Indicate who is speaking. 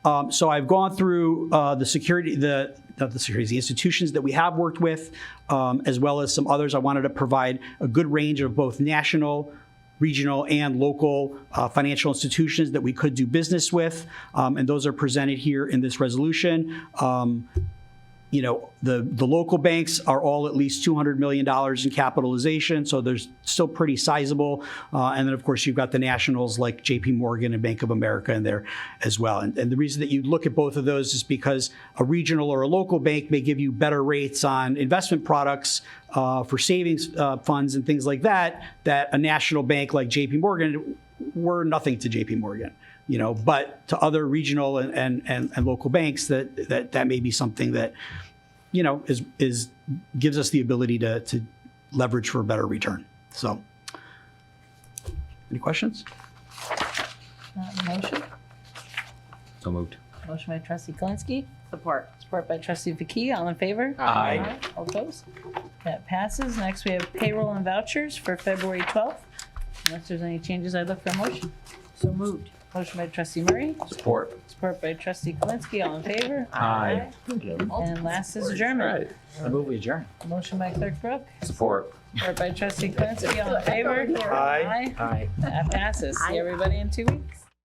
Speaker 1: Um, so I've gone through uh, the security, the not the securities, the institutions that we have worked with, um, as well as some others. I wanted to provide a good range of both national, regional, and local uh, financial institutions that we could do business with, um, and those are presented here in this resolution. Um, you know, the, the local banks are all at least $200 million in capitalization, so there's still pretty sizable. Uh, and then, of course, you've got the nationals like JP Morgan and Bank of America in there as well. And, and the reason that you look at both of those is because a regional or a local bank may give you better rates on investment products uh, for savings uh, funds and things like that, that a national bank like JP Morgan were nothing to JP Morgan you know, but to other regional and, and, and, and, local banks that, that that may be something that, you know, is is gives us the ability to to leverage for a better return. So any questions?
Speaker 2: Uh, Motion,
Speaker 3: So moved.
Speaker 2: motion by trustee Kalinsky,
Speaker 4: Support.
Speaker 2: support by trustee Vakia, all in favor?
Speaker 3: Aye.
Speaker 2: All opposed? That passes. Next, we have payroll and vouchers for February 12th. Unless there's any changes, I'd look for a motion.
Speaker 4: So moved.
Speaker 2: Motion by trustee Murray,
Speaker 3: Support.
Speaker 2: support by trustee Kalinsky, all in favor?
Speaker 3: Aye.
Speaker 2: And last is adjournment.
Speaker 3: I move we adjourn.
Speaker 2: Motion by clerk Brooke,
Speaker 3: Support.
Speaker 2: support by trustee Kalinsky, all in favor?
Speaker 4: Aye.
Speaker 3: Aye.
Speaker 2: That passes. See everybody in two weeks.